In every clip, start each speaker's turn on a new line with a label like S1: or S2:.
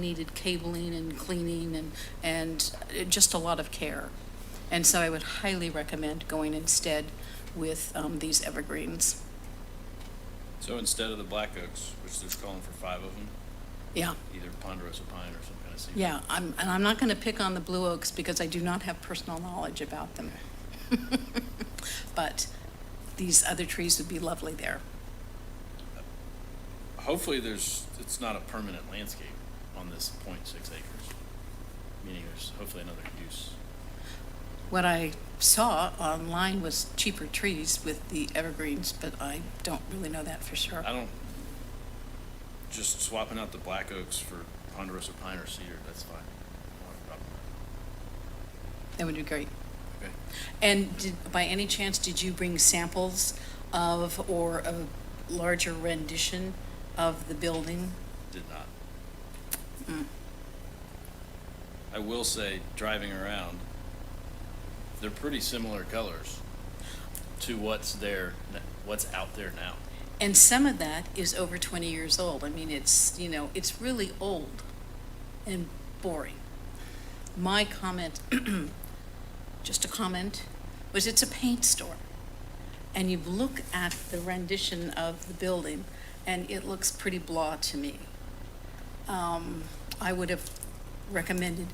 S1: needed cabling and cleaning and, and uh, just a lot of care. And so I would highly recommend going instead with um, these evergreens.
S2: So instead of the black oaks, which there's calling for five of them,
S1: Yeah,
S2: either ponderosa pine or some kind of cedar.
S1: yeah, I'm, and I'm not going to pick on the blue oaks because I do not have personal knowledge about them. But these other trees would be lovely there.
S2: Hopefully there's, it's not a permanent landscape on this point six acres. Meaning there's hopefully another use.
S1: What I saw online was cheaper trees with the evergreens, but I don't really know that for sure.
S2: I don't, just swapping out the black oaks for ponderosa pine or cedar, that's fine. Not a problem.
S1: That would be great.
S2: Okay.
S1: And did, by any chance, did you bring samples of, or a larger rendition of the building?
S2: Did not. I will say, driving around, they're pretty similar colors to what's there, n- what's out there now.
S1: And some of that is over 20 years old. I mean, it's, you know, it's really old and boring. My comment, just a comment, was it's a paint store. And you look at the rendition of the building, and it looks pretty blah to me. Um, I would have recommended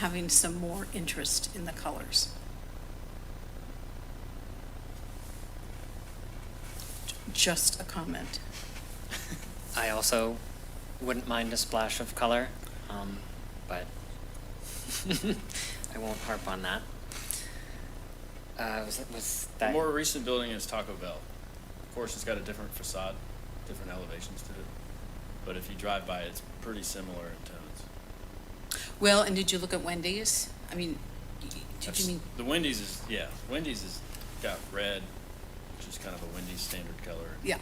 S1: having some more interest in the colors. J- Just a comment.
S3: I also wouldn't mind a splash of color, um, but I won't harp on that. Uh, was, was
S2: The
S3: that
S2: more recent building is Taco Bell. Of course, it's got a different facade, different elevations to it. But if you drive by, it's pretty similar in tones.
S1: Well, and did you look at Wendy's? I mean, y- did you
S2: That's-
S1: mean,
S2: The Wendy's is, yeah, Wendy's has got red, which is kind of a Wendy's standard color.
S1: yeah.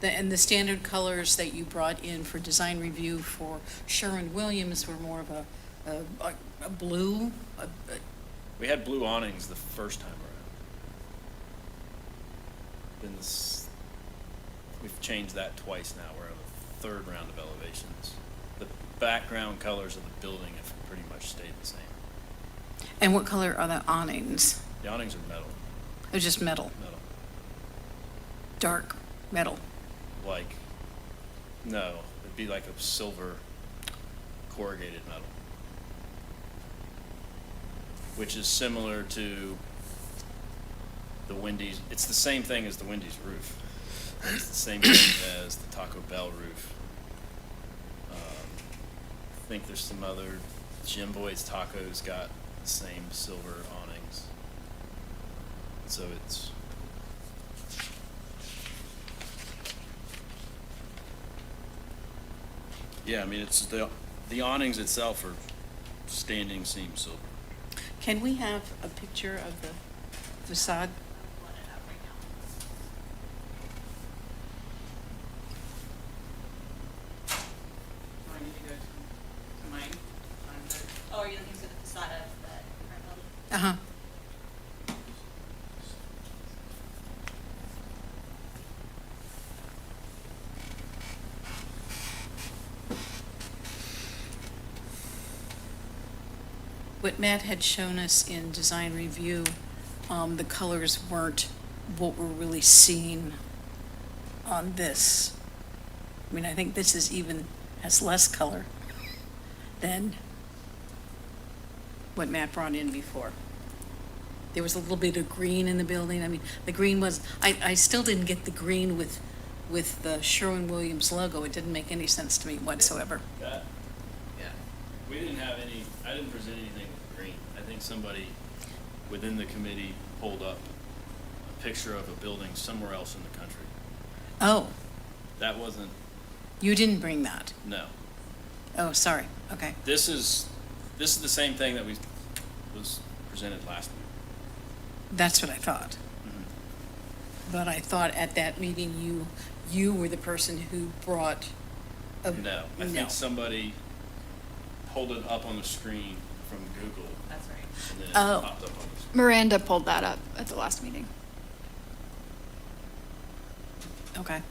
S1: The, and the standard colors that you brought in for design review for Sherwin-Williams were more of a, a- a, a blue, a, a-
S2: We had blue awnings the first time around. Then this, we've changed that twice now. We're on the third round of elevations. The background colors of the building have pretty much stayed the same.
S1: and what color are the awnings?
S2: The awnings are metal,
S1: It was just metal,
S2: metal,
S1: dark metal.
S2: like, no, it'd be like a silver corrugated metal. Which is similar to the Wendy's, it's the same thing as the Wendy's roof. It's the same thing as the Taco Bell roof. Um, I think there's some other, Jim Boy's Tacos got the same silver awnings. So it's, yeah, I mean, it's the, the awnings itself are standing seam silver.
S1: Can we have a picture of the facade?
S4: Do I need to go to mine? Mine there? Oh, are you looking for the facade of the current building?
S1: Uh-huh. What Matt had shown us in design review, um, the colors weren't what we're really seeing on this. I mean, I think this is even, has less color than what Matt brought in before. There was a little bit of green in the building. I mean, the green was, I, I still didn't get the green with, with the Sherwin-Williams logo. It didn't make any sense to me whatsoever.
S2: That,
S3: yeah.
S2: we didn't have any, I didn't present anything with green. I think somebody within the committee pulled up a picture of a building somewhere else in the country.
S1: Oh,
S2: That wasn't,
S1: you didn't bring that.
S2: no.
S1: Oh, sorry. Okay.
S2: This is, this is the same thing that we, was presented last week.
S1: That's what I thought. But I thought at that meeting, you, you were the person who brought a.
S2: No, I
S1: No.
S2: think somebody pulled it up on the screen from Google
S4: That's right.
S2: and then it
S1: Oh.
S2: popped up on the screen.
S5: Miranda pulled that up at the last meeting.
S1: Okay.